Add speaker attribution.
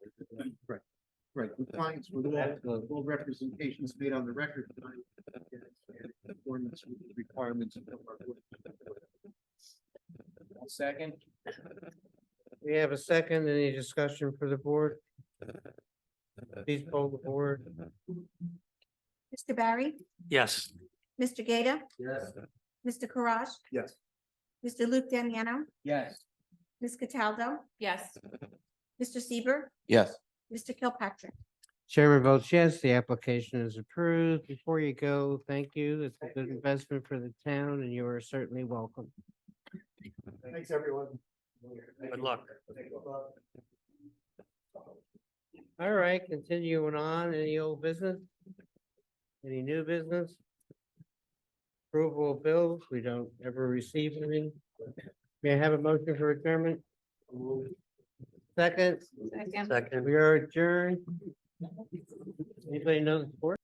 Speaker 1: Right, compliance with all, all representations made on the record. tonight, and Conformance with the requirements of our. Second.
Speaker 2: We have a second, any discussion for the board? Please poll the board.
Speaker 3: Mr. Barry,
Speaker 4: Yes.
Speaker 3: Mr. Gata,
Speaker 1: Yes.
Speaker 3: Mr. Karash,
Speaker 1: Yes.
Speaker 3: Mr. Luke Daniano,
Speaker 1: Yes.
Speaker 3: Ms. Cataldo. Yes. Mr. Seaver,
Speaker 4: Yes.
Speaker 3: Mr. Kilpatrick.
Speaker 2: Chairman votes yes, the application is approved. Before you go, thank you. It's a good investment for the town and you are certainly welcome.
Speaker 1: Thanks, everyone. Good
Speaker 4: luck.
Speaker 2: All right, continuing on, any old business? Any new business? Approval of bills, we don't ever receive any. May I have a motion for adjournment? Second,
Speaker 4: Second.
Speaker 2: we are adjourned. Anybody know the score?